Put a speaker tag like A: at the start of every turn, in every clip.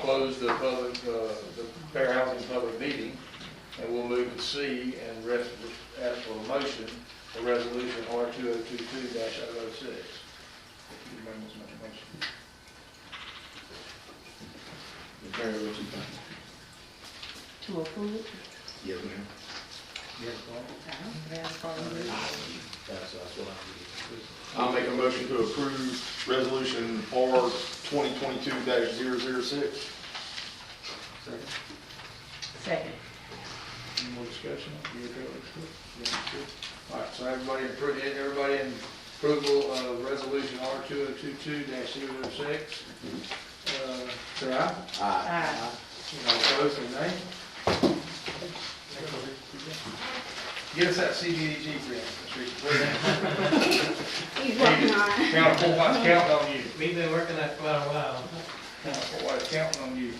A: close the public, uh, the fair housing public meeting, and we'll move to C and rest, ask for a motion for resolution R two oh two two dash oh oh six. If you remember what's my motion.
B: Very well, too.
C: To approve it?
B: Yes, ma'am.
A: Yes, Paul?
B: That's, that's what I
D: I'll make a motion to approve resolution R twenty twenty-two 6
A: Second.
C: Second.
A: Any more discussion? You okay with this? Yeah, sure. All right, so everybody, appro- everybody in approval of resolution R two oh two two dash zero six? Uh, Say aye.
B: Aye.
E: Uh,
C: Aye.
A: All opposed, say nay. Get us that CDBG grant, Mr. Reed.
F: He's working on it.
A: County Fort White's counting on you.
E: We've been working that for a while.
A: County Fort White's counting on you.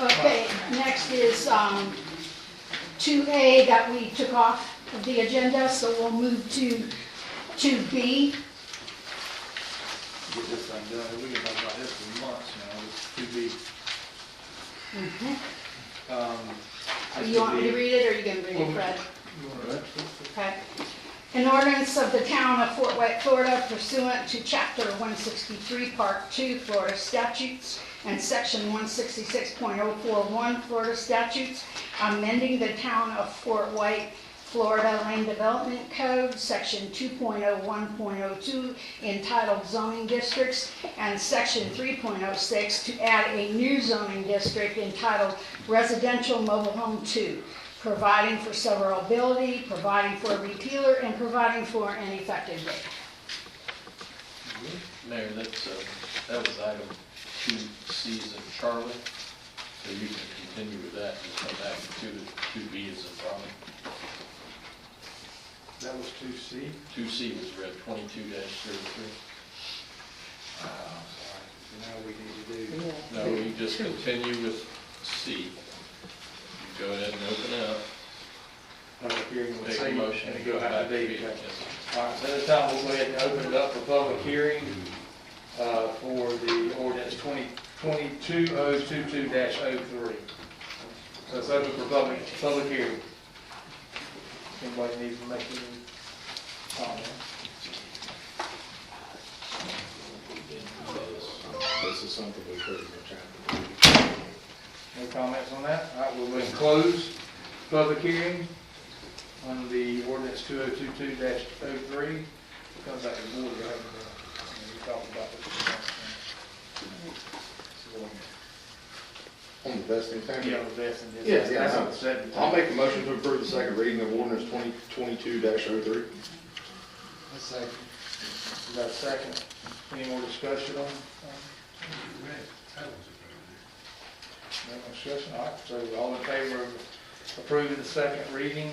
F: Okay, next is um, 2A that we took off of the agenda, so we'll move to 2B.
A: Get this thing done. We've been talking about this for months now. It's too big. Um, that's
F: Mm-hmm. You want me to
A: too big.
F: read it, or you going to read it, Fred?
A: You want to-
F: Okay. An ordinance of the town of Fort White, Florida pursuant to chapter one sixty-three, part two Florida statutes and section one sixty-six point oh four one Florida statutes, amending the town of Fort White, Florida Land Development Code, section two point oh one point oh two entitled zoning districts, and section three point oh six to add a new zoning district entitled residential mobile home two providing for severability, providing for a repealer, and providing for an effective date.
G: Mayor, that's, uh, that was item two C's in Charlotte, so you can continue with that and come back to two, two B is in Raleigh.
A: That was two C.
G: Two C was read twenty-two thirty-three.
A: Oh, sorry. Now we need to do.
C: Yeah.
G: No, you just continue with C. You Go ahead and open it up,
A: Public hearing with
G: make
A: C,
G: a motion.
A: and it go out to
G: back to
A: D.
G: B.
A: Okay.
G: Yes.
A: All right, so at this time, we'll go ahead and open it up for public hearing uh, for the ordinance 2022-022-03. So it's open for public, public hearing. Anybody needs to make any comments?
B: mean. This is something we could have been trying to do.
A: No comments on that? All right, we'll go ahead and close public hearing on the ordinance 2022-03. Comes back to the board, right? And We talked about this.
D: On the best in town.
A: Yeah, that's in this.
D: Yeah, yeah,
A: That's
D: I know.
A: on the second.
D: I'll make a motion to approve the second reading of ordinance twenty twenty-two oh 3
A: A second. We got a second. Any more discussion on? on- No more discussion, all right, so all in favor of approving the second reading,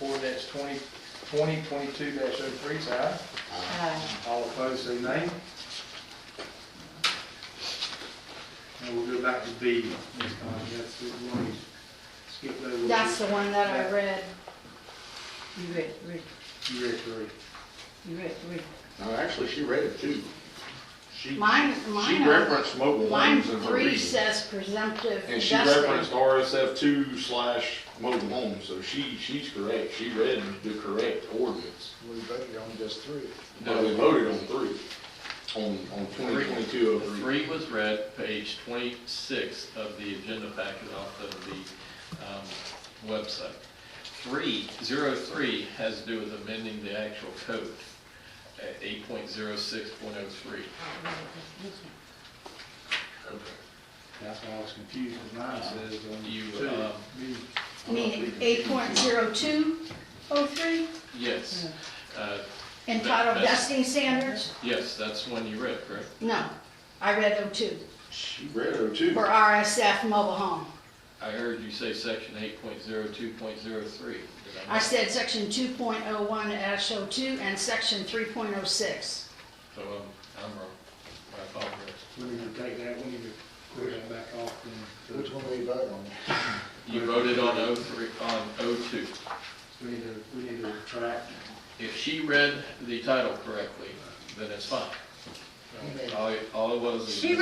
A: ordinance twenty, twenty twenty-two dash oh three, say aye.
C: Aye.
A: All opposed, say nay. And we'll go back to B next time, that's, it. we'll skip over.
F: That's the one that I read.
C: You read, read,
A: You read three.
C: you read, read.
D: No, actually, she read it too. She,
F: Mine,
D: she
F: mine, are-
D: referenced mobile
F: line
D: homes in her
F: three
D: reading.
F: says presumptive
D: And she
F: vesting.
D: referenced RSF two slash mobile homes, so she, she's correct. She read the correct ordinance.
B: We voted on just three.
D: No, we voted on three, on, on
G: Three.
D: twenty twenty-two oh
G: The
D: three.
G: Three was read, page twenty-six of the agenda packet off of the um, website. Three, zero three has to do with amending the actual code, uh, eight point zero six point oh three.
A: That's why I was confused, because mine says on
G: You,
A: two.
G: uh,
A: B.
F: Meaning eight point zero two oh three
G: Yes, Uh,
F: entitled
G: That's-
F: vesting standards?
G: yes, that's one you read, correct?
F: No, I read oh two
D: She read oh two.
F: for RSF mobile home.
G: I heard you say section eight point zero two point zero three.
F: I said section two point oh one dash oh two and section three point oh six.
G: So um, I'm wrong. I apologize.
A: We need to take that, we need to clear that back off and
B: Which one we voted on?
G: You voted on O three, on O two.
A: we need to, we need to retract.
G: If she read the title correctly, then it's fine. All, all it was is.
C: She